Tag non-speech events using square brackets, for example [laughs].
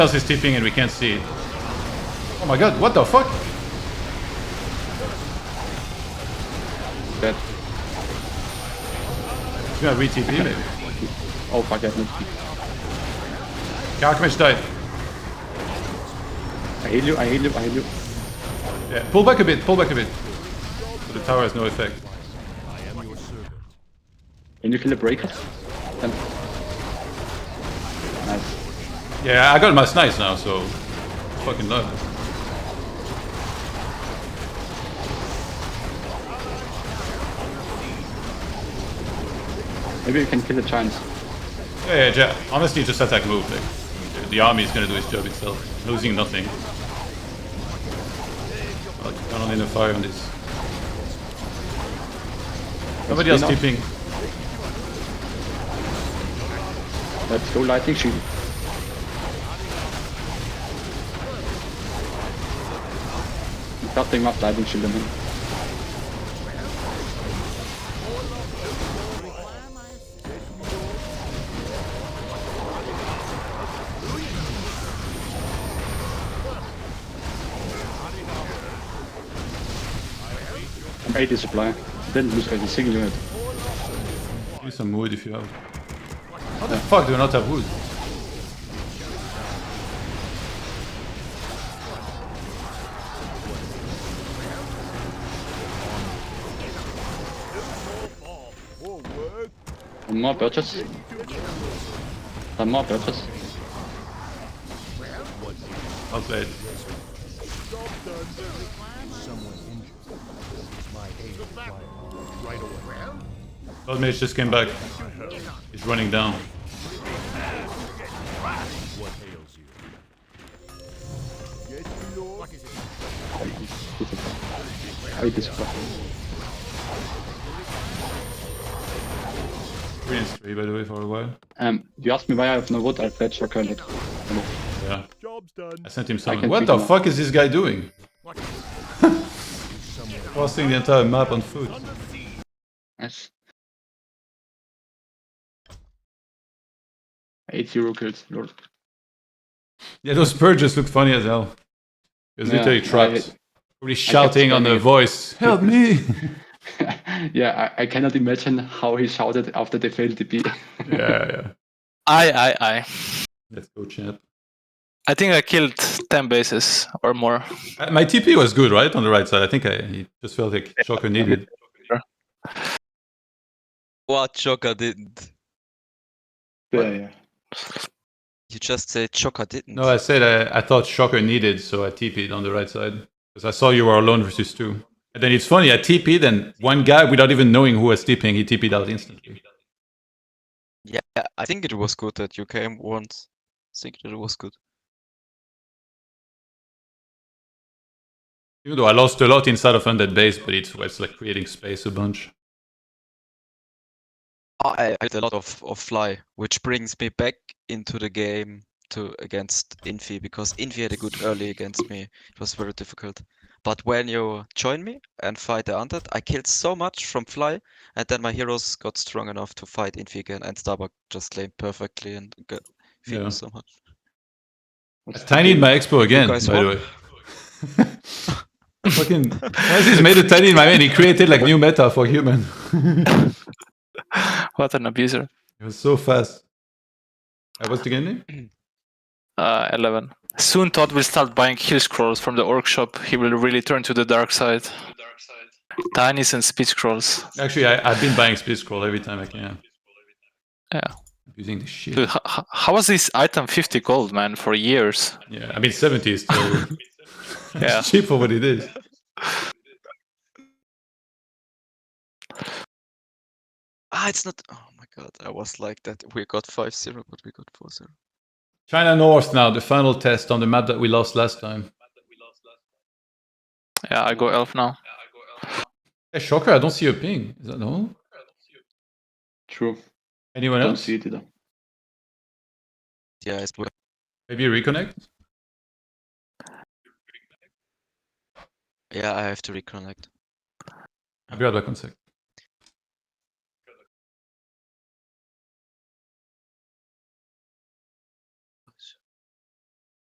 else is tipping and we can't see it. Oh my god, what the fuck? Dead. He's gonna re-TP maybe. Oh fuck, I have no speed. Kakmesh died. I heal you, I heal you, I heal you. Yeah, pull back a bit, pull back a bit. So the tower has no effect. Can you kill the breaker? And... Nice. Yeah, I got my snipes now, so fucking love it. Maybe you can kill the giants. Yeah, yeah, ja- honestly, just attack move. Like, the- the army is gonna do its job itself, losing nothing. Like, I don't need a fire on this. Somebody else Spin off. tipping. Let's go lightning shield. Nothing up lightning shield, I mean. I'm 80 supply. Didn't lose any single unit. Use some wood if you have. How the fuck do you not have wood? Some more purchase. Some more purchase. I'll play it. Old mage just came back. He's running down. I hate this fuck. Three and three, by the way, for a while. Um, you asked me why I have no wood, I fetched your current. Yeah. Job's done. I sent him something. can What feed the him up. fuck is this guy doing? [laughs] Crossing the entire map on foot. Nice. 8-0 kills, lord. Yeah, those purges look funny as hell. He was Yeah, literally trapped. I- Probably shouting on the spamming. voice. Help me! yeah, I, I cannot imagine how he shouted after they failed the B. yeah, yeah. I, I, I. Let's go, [laughs] champ. I think I killed 10 bases or more. Uh, My TP was good, right? On the right side. I think I it just felt like Shocker needed. What Joker didn't? yeah, yeah. You just said Joker didn't. No, I said uh, I, I thought Shocker needed, so I TP'd on the right side. Because I saw you were alone versus two. And then it's funny, I TP'd, and one guy, without even knowing who was TPing, he TP'd out instantly. yeah, I think it was good that you came once. I think that it was good. Even though I lost a lot inside of Undead Base, but it's, it's like creating space a bunch. I I did a lot of, of fly, which brings me back into the game to against Infi because Infi had a good early against me. It was very difficult. But when you join me and fight the undead, I killed so much from fly, and then my heroes got strong enough to fight Infi again, and Starbuck just laid perfectly and got feed Yeah. me so much. I need my expo again, by guys the won. way. [laughs] Fucking Francis made a tiny in my man. He created like new meta for human. What an abuser. It was so fast. I was the game name? Uh, 11. Soon Todd will start buying heal scrolls from the orc shop. He will really turn to the dark side. Tinies and speed scrolls. Actually, I, I've been buying Speed Scroll every time I can. Yeah. Using the shit. Dude, h- h- how was this item 50 gold, man, for years? Yeah, I mean, 70 is still [laughs] [laughs] Yeah. it's cheap for what it is. Ah, it's not. Oh my god, I was like that. We got 5 0, but we got 4 0. China North now, the final test on the map that we lost last time. Yeah, I go elf now. Hey, Shocker, I don't see a ping. Is that no? True. Anyone Don't else? see it either. Yeah, it's Maybe reconnect? Yeah, I have to reconnect. I'll be right back one sec.